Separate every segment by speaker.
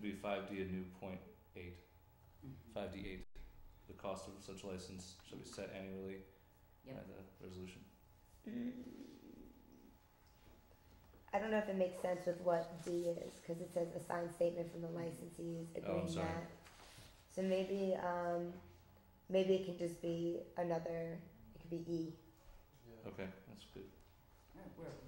Speaker 1: be five D, a new point eight.
Speaker 2: Mhm.
Speaker 1: Five D eight, the cost of such license shall be set annually by
Speaker 2: Yep.
Speaker 1: the resolution.
Speaker 3: Mm. I don't know if it makes sense with what D is, because it says a signed statement from the licensees
Speaker 1: Oh, I'm
Speaker 3: agreeing
Speaker 1: sorry.
Speaker 3: that. So maybe, um, maybe it can just be another, it could be E.
Speaker 1: Okay, that's good.
Speaker 2: Alright, where are we?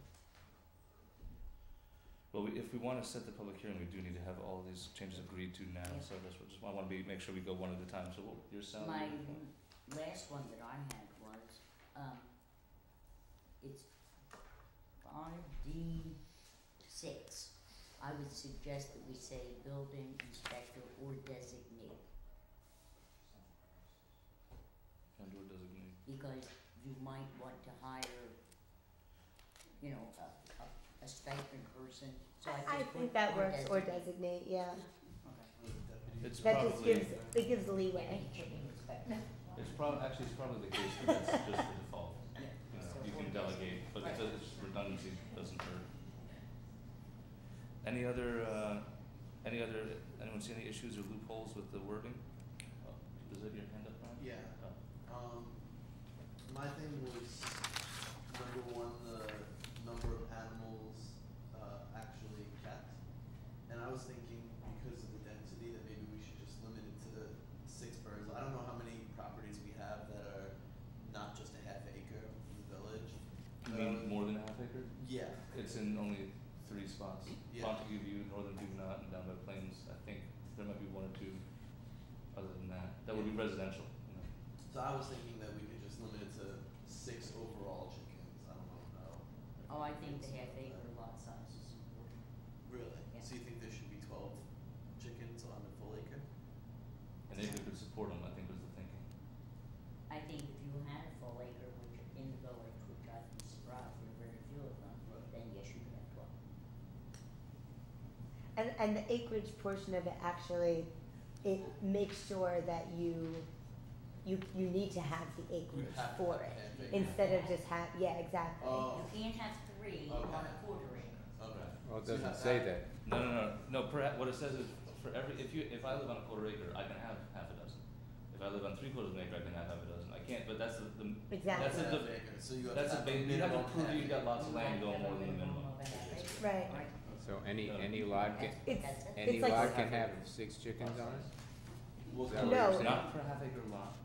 Speaker 1: Well, we, if we wanna set the public hearing, we do need to have all these changes agreed to now,
Speaker 2: Yeah.
Speaker 1: so that's what, just, I wanna be, make sure we go one at a time, so what, your sound?
Speaker 2: My last one that I had was, um, it's five D six. I would suggest that we say building inspector or designate,
Speaker 1: And or designate,
Speaker 2: because you might want to hire, you know, a, a, a stipend person, so I
Speaker 3: I
Speaker 2: just put
Speaker 3: think that
Speaker 2: or
Speaker 3: works, or
Speaker 2: designate.
Speaker 3: designate, yeah.
Speaker 2: Okay.
Speaker 1: it's
Speaker 3: That just
Speaker 1: probably,
Speaker 3: gives, it gives leeway.
Speaker 1: it's prob- actually, it's probably the case that that's just the default,
Speaker 2: Yeah,
Speaker 1: you know,
Speaker 2: so
Speaker 1: you
Speaker 2: or
Speaker 1: can
Speaker 2: designate.
Speaker 1: delegate, but
Speaker 2: Right.
Speaker 1: it does, it's redundancy doesn't hurt. Any other, uh, any other, anyone see any issues or loopholes with the wording? Oh, Does it have your hand up, Ryan?
Speaker 4: Yeah,
Speaker 1: Oh.
Speaker 4: um, my thing was number one, the number of animals, uh, actually kept. And I was thinking because of the density that maybe we should just limit it to six birds. I don't know how many properties we have that are not just a half acre in the village.
Speaker 1: You
Speaker 4: but I
Speaker 1: mean
Speaker 4: was-
Speaker 1: more than a half acre?
Speaker 4: Yeah,
Speaker 1: It's in only three spots.
Speaker 4: Yeah.
Speaker 1: Montague View, Northern Huguenot, and down by Plains, I think there might be one or two other than that. That would be residential, you know.
Speaker 4: so I was thinking that we could just limit it to six overall chickens. I don't know how.
Speaker 2: Oh, I think the
Speaker 4: everyone
Speaker 2: half
Speaker 4: feels about
Speaker 2: acre
Speaker 4: that.
Speaker 2: lot size is important.
Speaker 4: Really?
Speaker 2: Yeah.
Speaker 4: So you think there should be twelve chickens on a full acre?
Speaker 1: And if we could support them, I think was the thinking.
Speaker 2: I think if you had a full acre, which are in the village, which I've been surprised, there are very few of them,
Speaker 4: Right.
Speaker 2: then yes, you could have twelve.
Speaker 3: And, and the acreage portion of it actually, it makes sure that you, you, you need to have the acreage for it. Instead of just have, yeah, exactly.
Speaker 4: Oh,
Speaker 2: You can't have three on a
Speaker 4: Okay.
Speaker 2: quarter acre.
Speaker 4: okay.
Speaker 5: Well, it
Speaker 4: So you
Speaker 5: doesn't
Speaker 4: have
Speaker 5: say that.
Speaker 1: No, no, no, no, perhaps, what it says is for every, if you, if I live on a quarter acre, I can have half a dozen. If I live on three quarters of an acre, I can have half a dozen. I can't, but that's the, the,
Speaker 3: Exactly,
Speaker 1: That's a
Speaker 4: half
Speaker 1: diff-
Speaker 4: acre, so you have
Speaker 1: that's a,
Speaker 4: half
Speaker 1: ba- you have to
Speaker 4: minimum
Speaker 1: prove
Speaker 4: half
Speaker 1: you've got
Speaker 4: acre.
Speaker 1: lots of land
Speaker 2: You
Speaker 1: going
Speaker 2: have to
Speaker 1: more
Speaker 2: have
Speaker 1: than the
Speaker 2: a
Speaker 1: minimum.
Speaker 2: minimum of a half acre.
Speaker 3: right.
Speaker 2: Right.
Speaker 5: So any,
Speaker 1: No.
Speaker 5: any lot can,
Speaker 2: That's-
Speaker 3: It's-
Speaker 2: that's it.
Speaker 5: any
Speaker 3: like-
Speaker 5: lot can have six chickens on it?
Speaker 4: Well,
Speaker 5: Is that what
Speaker 3: No.
Speaker 5: you're saying?
Speaker 1: Not per half acre lot,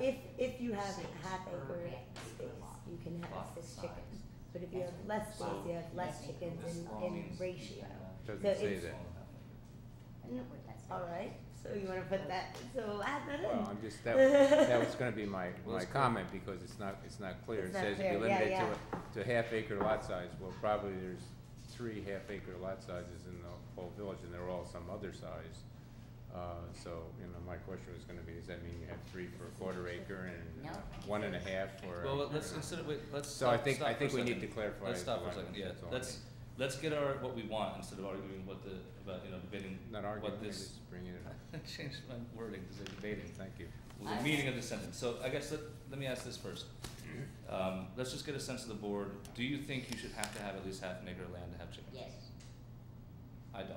Speaker 3: If, if you have
Speaker 2: Six
Speaker 3: half
Speaker 2: per
Speaker 3: acre
Speaker 2: half acre
Speaker 3: space,
Speaker 2: lot.
Speaker 3: you can have
Speaker 1: lot
Speaker 3: six
Speaker 1: size.
Speaker 3: chickens. But if you have less space,
Speaker 1: So-
Speaker 3: you have less
Speaker 2: Yes.
Speaker 3: chickens
Speaker 1: This law
Speaker 3: in, in
Speaker 1: means you
Speaker 3: ratio.
Speaker 1: can't have-
Speaker 3: So
Speaker 5: Doesn't say
Speaker 3: it's-
Speaker 5: that.
Speaker 2: I know what that's like.
Speaker 3: Alright, so you wanna put that, so add that
Speaker 5: Well,
Speaker 3: in.
Speaker 5: I'm just, that, that was gonna be my,
Speaker 1: Well,
Speaker 5: my
Speaker 1: it's clear.
Speaker 5: comment, because it's not, it's not clear.
Speaker 3: It's not
Speaker 5: It says if
Speaker 3: clear.
Speaker 5: you
Speaker 3: Yeah,
Speaker 5: limit it to, a- to half acre lot size, well, probably there's three half acre lot sizes in the whole village, and they're all some other size. Uh, so, you know, my question was gonna be, does that mean you have three for a quarter acre and uh,
Speaker 2: No.
Speaker 5: one and a half for?
Speaker 1: Well, let's, instead of, wait, let's
Speaker 5: So
Speaker 1: stop,
Speaker 5: I think,
Speaker 1: stop
Speaker 5: I
Speaker 1: for
Speaker 5: think
Speaker 1: a
Speaker 5: we need
Speaker 1: second.
Speaker 5: to clarify.
Speaker 1: Let's stop for a
Speaker 5: the
Speaker 1: second,
Speaker 5: language,
Speaker 1: yeah,
Speaker 5: that's all I
Speaker 1: let's, let's get our, what we want, instead of arguing what the, about, you know, debating
Speaker 5: mean. Not arguing,
Speaker 1: what
Speaker 5: I'm
Speaker 1: this,
Speaker 5: just bringing it up.
Speaker 1: I changed my wording to say debating,
Speaker 5: Thank you.
Speaker 1: Well, the
Speaker 2: I-
Speaker 1: meaning of the sentence, so I guess let, let me ask this first. Um, let's just get a sense of the board, do you think you should have to have at least half an acre of land to have chickens?
Speaker 2: Yes,
Speaker 1: I don't.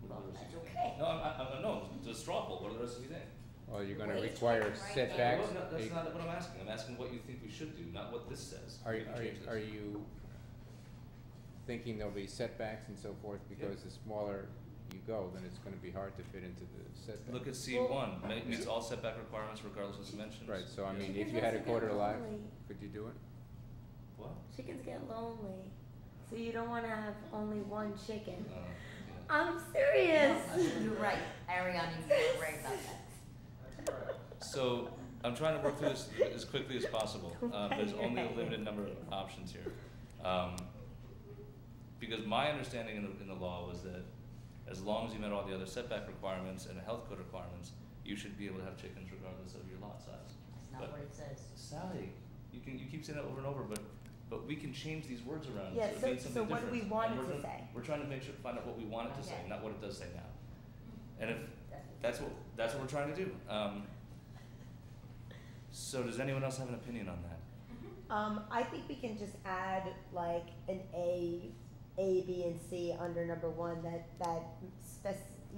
Speaker 1: What do the
Speaker 2: well,
Speaker 1: rest of
Speaker 2: that's
Speaker 1: you think?
Speaker 2: okay.
Speaker 1: No, I, I, I, no, the straw poll, what do the rest of you think?
Speaker 5: Well, you're gonna
Speaker 2: Wait,
Speaker 5: require
Speaker 2: right there.
Speaker 5: setbacks.
Speaker 1: Well, no, that's
Speaker 5: a-
Speaker 1: not what I'm asking, I'm asking what you think we should do, not what this says.
Speaker 5: Are,
Speaker 1: We can
Speaker 5: are,
Speaker 1: change this.
Speaker 5: are you thinking there'll be setbacks and so forth, because the smaller you go, then it's gonna be hard to fit into the setback?
Speaker 1: Look at C one, meets all setback requirements regardless of dimensions.
Speaker 5: Right, so I
Speaker 1: Yes.
Speaker 5: mean, if you had a
Speaker 3: Chickens
Speaker 5: quarter
Speaker 3: get
Speaker 5: lot,
Speaker 3: lonely.
Speaker 5: could you do it?
Speaker 1: What?
Speaker 3: Chickens get lonely, so you don't wanna have only one chicken.
Speaker 1: Uh, yeah.
Speaker 3: I'm serious.
Speaker 2: No, You're right, Ariana, you're right about that.
Speaker 1: So, I'm trying to work through this as quickly as possible, uh, there's only a
Speaker 3: Right.
Speaker 1: limited number of options here. Um, because my understanding in the, in the law was that as long as you met all the other setback requirements and the health code requirements, you should be able to have chickens regardless of your lot size.
Speaker 2: That's not
Speaker 1: But-
Speaker 2: what it says.
Speaker 1: Sally, you can, you keep saying that over and over, but, but we can change these words around, so
Speaker 3: Yeah,
Speaker 1: it
Speaker 3: so-
Speaker 1: means
Speaker 3: so
Speaker 1: something different.
Speaker 3: what do we
Speaker 1: And
Speaker 3: want it
Speaker 1: we're
Speaker 3: to
Speaker 1: gonna-
Speaker 3: say?
Speaker 1: We're trying to make sure, find out what we want it to say,
Speaker 2: Okay.
Speaker 1: not what it does say now. And if,
Speaker 2: That's-
Speaker 1: that's what, that's what we're trying to do, um. So does anyone else have an opinion on that?
Speaker 3: Um, I think we can just add like an A, A, B, and C under number one that, that spec-